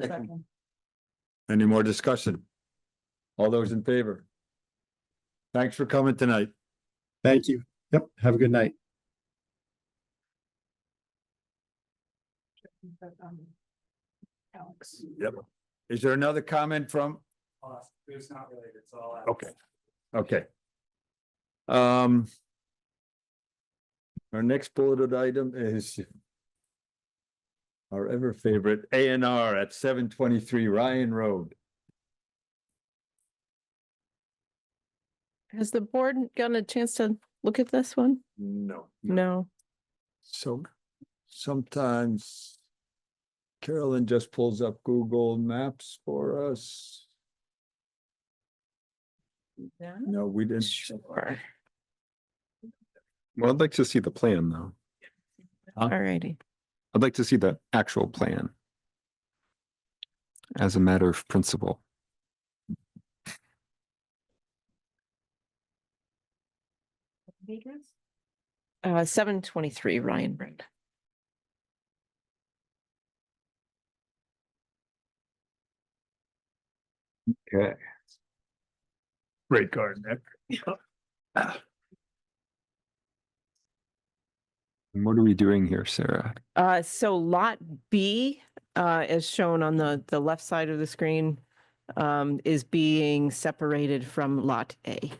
Second. Any more discussion? All those in favor? Thanks for coming tonight. Thank you. Yep. Have a good night. Alex. Yep. Is there another comment from? Uh, It's not related, so I'll. Okay, okay. Um. Our next bulleted item is. Our ever favorite A and R at seven twenty-three Ryan Road. Has the board gotten a chance to look at this one? No. No. So sometimes Carolyn just pulls up Google Maps for us. No, we didn't. Sure. Well, I'd like to see the plan, though. Huh? All righty. I'd like to see the actual plan. As a matter of principle. Uh, seven twenty-three Ryan Road. Okay. Great garden. Nick. And what are we doing here, Sarah? Uh, so lot B, uh, as shown on the, the left side of the screen, um, is being separated from lot A.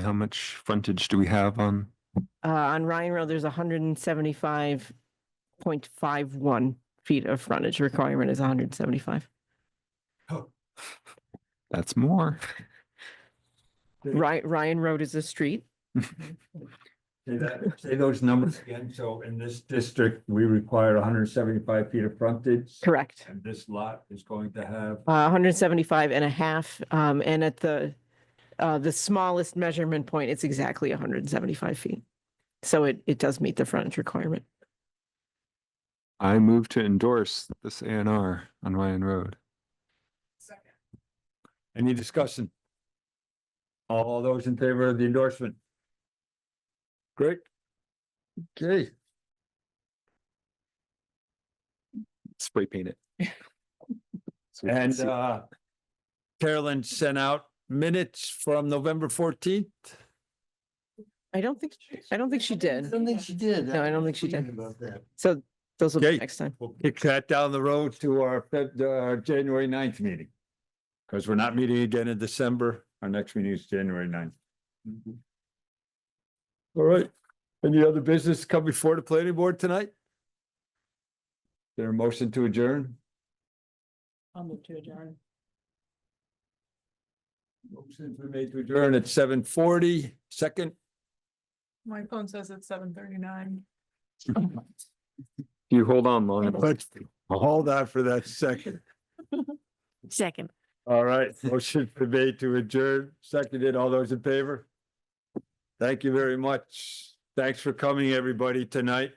How much frontage do we have on? Uh, on Ryan Road, there's hundred and seventy-five point five one feet of frontage requirement is hundred and seventy-five. That's more. Ry- Ryan Road is a street. Say that- say those numbers again. So in this district, we require hundred and seventy-five feet of frontage. Correct. And this lot is going to have, Uh, 175 and a half, um, and at the, uh, the smallest measurement point, it's exactly hundred and seventy-five feet. So it, it does meet the frontage requirement. I move to endorse this A and R on Ryan Road. any discussion? All those in favor of the endorsement? Great. Okay, Spray paint it. So we can and see- uh. Carolyn sent out minutes from November fourteenth. I don't think, I don't think she did. did. No, I don't think she did. Forget about that. So those will Okay. be next time. We'll kick that down the road to our Feb, our January 9th meeting. Because we're not meeting again in December. Our next meeting is January 9th. Mm-hmm. All right. Any other business come before the planning board tonight? There a motion to adjourn? I'll move to adjourn. Motion's been made to adjourn at seven forty. Second, My phone says it's seven thirty-nine. If You hold on long enough. but hold on for that second. Second. All right, motion been made to adjourn. Seconded. All those in favor? Thank you very much. Thanks for coming, everybody, tonight.